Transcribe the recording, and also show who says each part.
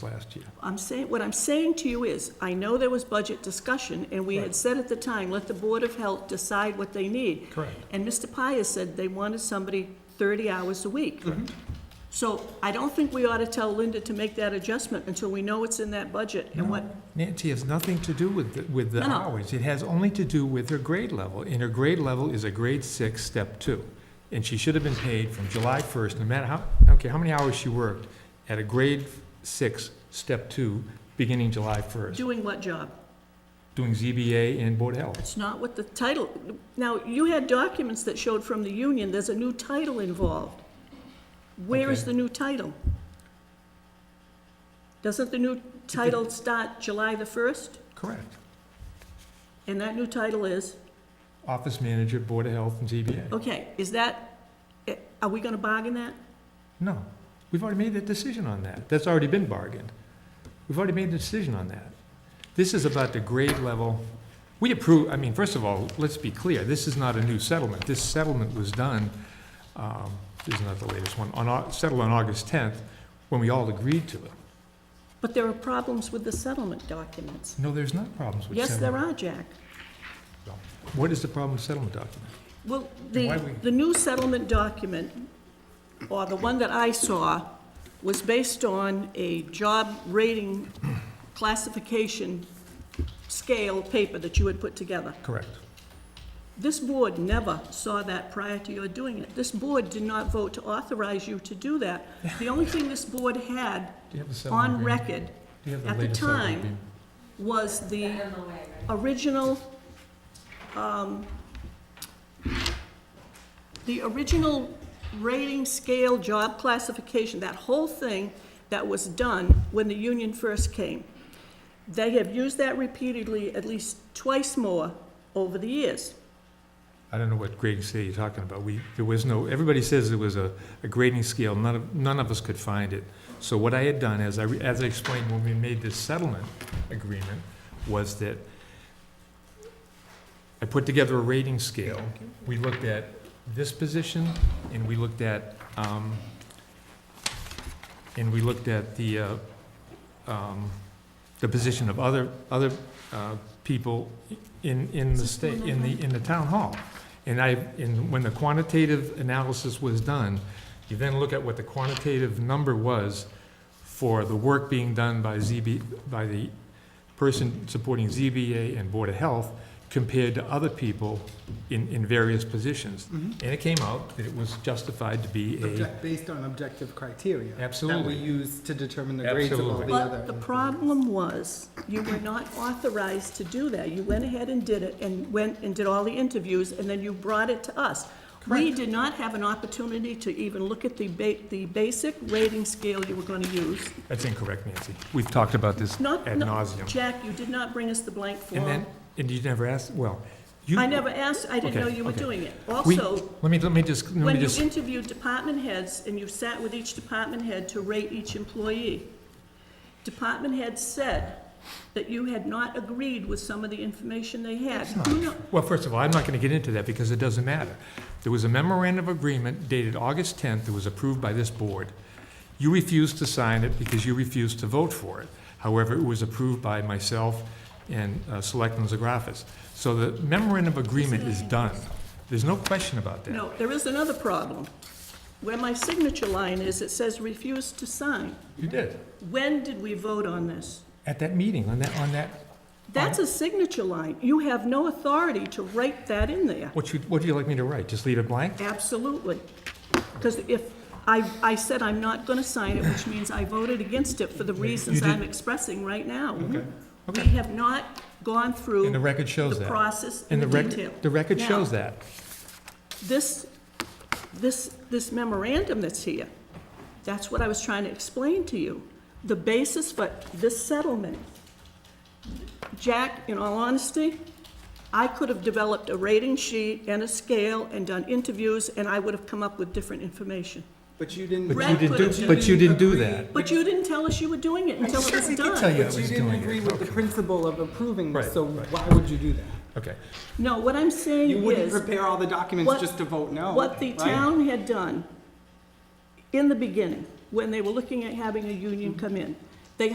Speaker 1: last year.
Speaker 2: I'm saying, what I'm saying to you is, I know there was budget discussion, and we had
Speaker 1: Right.
Speaker 2: said at the time, let the Board of Health decide what they need.
Speaker 1: Correct.
Speaker 2: And Mr. Pius said they wanted somebody thirty hours a week. So I don't think we ought to tell Linda to make that adjustment until we know it's in that budget and what,
Speaker 1: Nancy has nothing to do with, the- with the
Speaker 2: No, no.
Speaker 1: hours. It has only to do with her grade level, and her grade level is a grade six, step two. And she should have been paid from July first, no matter how, I don't care how many hours she worked, at a grade six, step two, beginning July first,
Speaker 2: doing what job.
Speaker 1: doing ZBA and Board of Health.
Speaker 2: It's not what the title, now, you had documents that showed from the union, there's a new title involved. Where is
Speaker 1: Okay.
Speaker 2: the new title? Doesn't the new title start July the first?
Speaker 1: Correct.
Speaker 2: And that new title is,
Speaker 1: Office manager, Board of Health, and ZBA.
Speaker 2: okay, is that, eh, are we gonna bargain that?
Speaker 1: No, we've already made that decision on that. That's already been bargained. We've already made the decision on that. This is about the grade level. We approve, I mean, first of all, let's be clear, this is not a new settlement. This settlement was done, um, this is not the latest one, on, Au- settled on August 10th, when we all agreed to it.
Speaker 2: But there are problems with the settlement documents.
Speaker 1: No, there's not problems with
Speaker 2: Yes, there
Speaker 1: settlement.
Speaker 2: are, Jack.
Speaker 1: there are. What is the problem with settlement document?
Speaker 2: Well,
Speaker 1: Why
Speaker 2: the,
Speaker 1: we-
Speaker 2: the new settlement document, or the one that I saw, was based on a job rating classification scale paper that you had put together.
Speaker 1: Correct.
Speaker 2: This board never saw that prior to your doing it. This board did not vote to authorize you to do that. The only thing this board had
Speaker 1: Do you have the settlement
Speaker 2: on
Speaker 1: agreement?
Speaker 2: record
Speaker 1: Do you have
Speaker 2: at the
Speaker 1: latest settlement
Speaker 2: time
Speaker 1: agreement?
Speaker 2: was the original, um, the original rating scale, job classification, that whole thing that was done when the union first came. They have used that repeatedly, at least twice more over the years.
Speaker 1: I don't know what grading scale you're talking about. We, there was no, everybody says there was a, a grading scale, none of, none of us could find it. So what I had done, as I, re- as I explained when we made this settlement agreement, was that I put together a rating scale. We looked at this position, and we looked at, um, and we looked at the, uh, um, the position of other, other, uh, people in, in the state, in the, in the town hall. And I, and when the quantitative analysis was done, you then look at what the quantitative number was for the work being done by ZB, by the person supporting ZBA and Board of Health compared to other people in, in various positions.
Speaker 2: Mm-hmm.
Speaker 1: And it came out that it was justified to be a,
Speaker 3: Object- Based on objective criteria. That
Speaker 1: Absolutely.
Speaker 3: we use to determine the grades of all
Speaker 1: Absolutely.
Speaker 3: the other.
Speaker 2: But the problem was, you were not authorized to do that. You went ahead and did it, and went and did all the interviews, and then you brought it to us. We did not have an opportunity to even look at the ba, the basic rating scale you were gonna use.
Speaker 1: that's incorrect, Nancy. We've talked about this
Speaker 2: Not,
Speaker 1: ad
Speaker 2: no,
Speaker 1: nauseum.
Speaker 2: Jack, you did not bring us the blank
Speaker 1: And
Speaker 2: form.
Speaker 1: then, and you never asked, well, you.
Speaker 2: I never asked, I didn't know
Speaker 1: Okay,
Speaker 2: you were
Speaker 1: okay.
Speaker 2: doing it.
Speaker 1: We-
Speaker 2: Also,
Speaker 1: Let me, let me just, let
Speaker 2: when
Speaker 1: me
Speaker 2: you
Speaker 1: just,
Speaker 2: interviewed department heads and you sat with each department head to rate each employee, department heads said that you had not agreed with some of the information they had. Do you know-
Speaker 1: well, first of all, I'm not gonna get into that because it doesn't matter. There was a memorandum of agreement dated August tenth that was approved by this board. You refused to sign it because you refused to vote for it. However, it was approved by myself and uh, Selectman Zagrafis. So the memorandum of agreement is done. There's no question about that.
Speaker 2: No, there is another problem. Where my signature line is, it says refuse to sign.
Speaker 1: You did.
Speaker 2: When did we vote on this?
Speaker 1: At that meeting, on that, on that,
Speaker 2: That's a signature line. You have no authority to write that in there.
Speaker 1: what you, what do you like me to write? Just leave it blank?
Speaker 2: Absolutely. Because if, I, I said I'm not going to sign it, which means I voted against it for the reasons
Speaker 1: did-
Speaker 2: I'm expressing right now. We
Speaker 1: Okay.
Speaker 2: have not gone through.
Speaker 1: And the record shows
Speaker 2: The
Speaker 1: that.
Speaker 2: process
Speaker 1: And
Speaker 2: in
Speaker 1: the
Speaker 2: the
Speaker 1: record,
Speaker 2: detail.
Speaker 1: the record
Speaker 2: Now,
Speaker 1: shows that.
Speaker 2: This, this, this memorandum that's here, that's what I was trying to explain to you. The basis for this settlement. Jack, in all honesty, I could have developed a rating sheet and a scale and done interviews, and I would have come up with different information.
Speaker 3: But you didn't.
Speaker 1: But
Speaker 2: Brad
Speaker 1: you
Speaker 2: could've
Speaker 1: didn't do,
Speaker 2: done
Speaker 1: but you didn't do
Speaker 3: Agree.
Speaker 1: that.
Speaker 2: But you didn't tell us you were doing it until it was
Speaker 1: I can tell
Speaker 2: done.
Speaker 1: you I
Speaker 3: But
Speaker 1: was
Speaker 3: you didn't
Speaker 1: doing it.
Speaker 3: agree with the
Speaker 1: Okay.
Speaker 3: principle of approving,
Speaker 1: Right,
Speaker 3: so
Speaker 1: right.
Speaker 3: why would you do that?
Speaker 1: Okay.
Speaker 2: No, what I'm saying
Speaker 3: You wouldn't
Speaker 2: is,
Speaker 3: prepare all the documents
Speaker 2: what-
Speaker 3: just to vote no.
Speaker 2: What the
Speaker 3: right?
Speaker 2: town had done in the beginning, when they were looking at having a union come in,